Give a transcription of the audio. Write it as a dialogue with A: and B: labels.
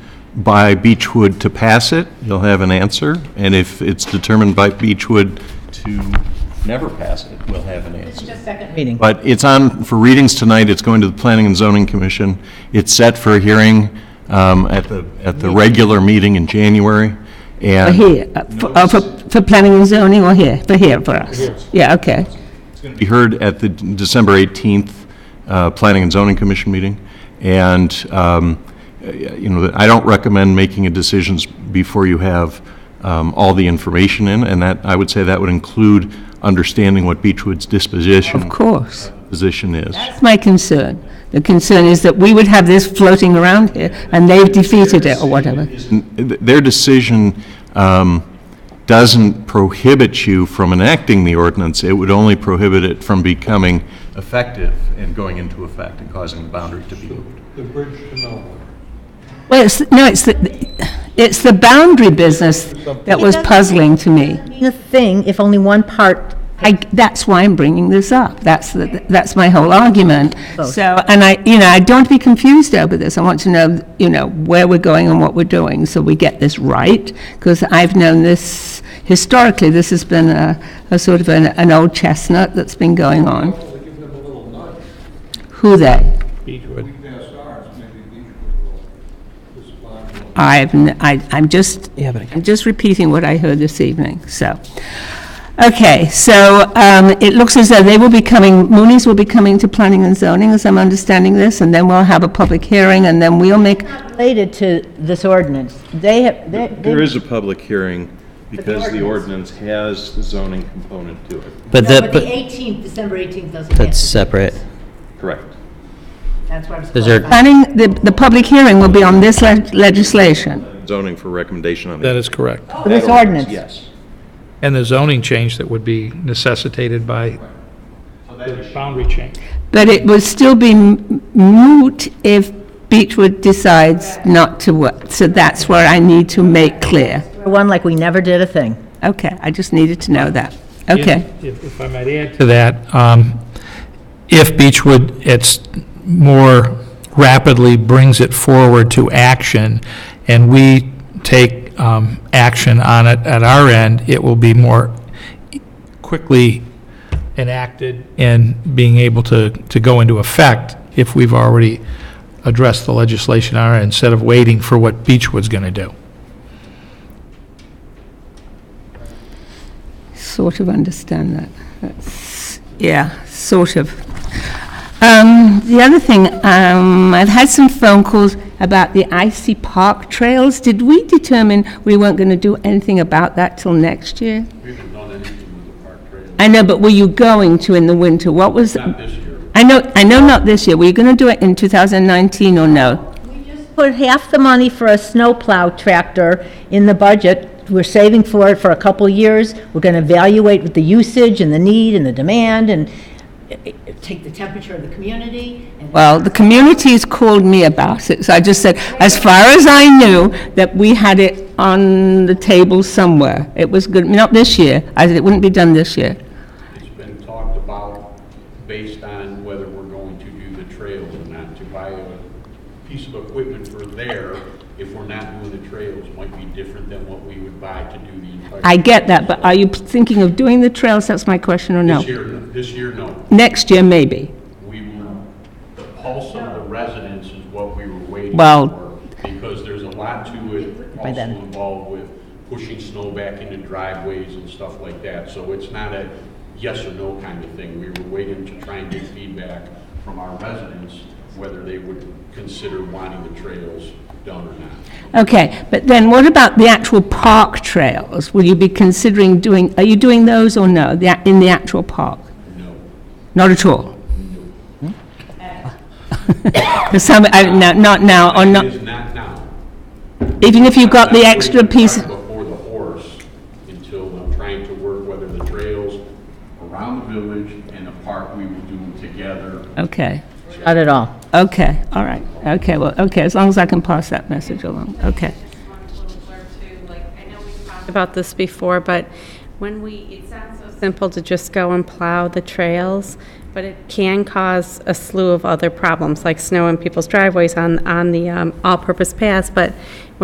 A: by Beechwood to pass it, you'll have an answer, and if it's determined by Beechwood to never pass it, we'll have an answer.
B: Just second reading.
A: But it's on for readings tonight, it's going to the Planning and Zoning Commission. It's set for a hearing um, at the, at the regular meeting in January,
C: Or
A: and...
C: here, uh, for, oh, for, for planning and zoning or here, for here, for us? Yeah, okay.
A: going to be heard at the December 18th uh, Planning and Zoning Commission meeting, and, um, uh, you know, I don't recommend making a decisions before you have um, all the information in, and that, I would say that would include understanding what Beechwood's
C: Of
A: disposition,
C: course.
A: position is.
C: That's my concern. The concern is that we would have this floating around here, and they've defeated it or whatever.
A: Their decision um, doesn't prohibit you from enacting the ordinance, it would only prohibit it from becoming effective and going into effect and causing the boundary to be moved.
D: The bridge to nowhere.
C: Well, it's, no, it's the, it's the boundary business that was puzzling to me.
B: The thing, if only one part,
C: I, that's why I'm bringing this up. That's, the- that's my whole argument. So, and I, you know, I don't be confused over this. I want to know, you know, where we're going and what we're doing, so we get this right, because I've known this, historically, this has been a, a sort of an, an old chestnut that's been going on. Who they?
D: We passed ours, maybe Beechwood will respond. to it.
C: I've, n- I, I'm just,
E: Yeah, but I
C: I'm just repeating what I heard this evening, so. Okay, so um, it looks as though they will be coming, Mooney's will be coming to planning and zoning, as I'm understanding this, and then we'll have a public hearing, and then we'll make,
B: related to this ordinance, they have, they- they-
A: There is a public hearing because the ordinance has the zoning component to it.
E: But
F: No,
E: the,
F: but the
E: but
F: 18th, December 18th doesn't.
E: that's
F: pass.
E: separate.
A: Correct.
F: That's what I was
E: Those are-
F: clarifying.
C: planning, the, the public hearing will be on this le- legislation.
A: Zoning for recommendation on
G: That
A: the.
G: is correct.
B: this ordinance.
A: Yes.
G: And the zoning change that would be necessitated by the boundary change.
C: But it will still be m- moot if Beechwood decides not to work, so that's where I need to make clear.
B: One like we never did a thing.
C: Okay, I just needed to know that. Okay.
G: If if I might add to that, um, if Beechwood, it's more rapidly brings it forward to action, and we take um, action on it at our end, it will be more quickly enacted and being able to, to go into effect if we've already addressed the legislation on our end, instead of waiting for what Beechwood's going to do.
C: sort of understand that. That's, yeah, sort of. Um, the other thing, um, I've had some phone calls about the icy park trails. Did we determine we weren't going to do anything about that till next year? I know, but were you going to in the winter? What was? Not this year. I know, I know, not this year. Were you going to do it in 2019 or no?
B: Put half the money for a snowplow tractor in the budget. We're saving for it for a couple of years. We're going to evaluate with the usage and the need and the demand and eh,
F: Take the temperature of the community and
C: Well, the community's called me about it, so I just said, as far as I knew, that we had it on the table somewhere. It was good, not this year, I said it wouldn't be done this year.
H: It's been talked about based on whether we're going to do the trails or not, to buy a piece of equipment for there, if we're not doing the trails, might be different than what we would buy to do the entire.
C: I get that, but are you thinking of doing the trails, that's my question, or no?
H: This year, no. this year, no.
C: Next year, maybe.
H: We will, the pulse of the residents is what we were waiting
C: Well-
H: for. Because there's a lot to it
B: By
H: also
B: then.
H: involved with pushing snow back into driveways and stuff like that. So it's not a yes or no kind of thing. We were waiting to try and get feedback from our residents, whether they would consider wanting the trails done or not.
C: Okay, but then what about the actual park trails? Will you be considering doing, are you doing those or no, the a- in the actual park?
H: No.
C: Not at all?
H: Hmm?
C: Some, I, no, not now, Uh, or not,
H: It is not now.
C: even if you've got
H: I'm
C: the
H: not
C: extra
H: putting the
C: piece.
H: cart Before the horse, until I'm trying to work whether the trails around the village and the park, we will do them together
C: Okay,
B: not at all.
C: okay, all right, okay, well, okay, as long as I can pass that message along, okay.
I: about this before, but when we, it sounds so simple to just go and plow the trails, but it can cause a slew of other problems, like snow in people's driveways on, on the um, all-purpose paths, but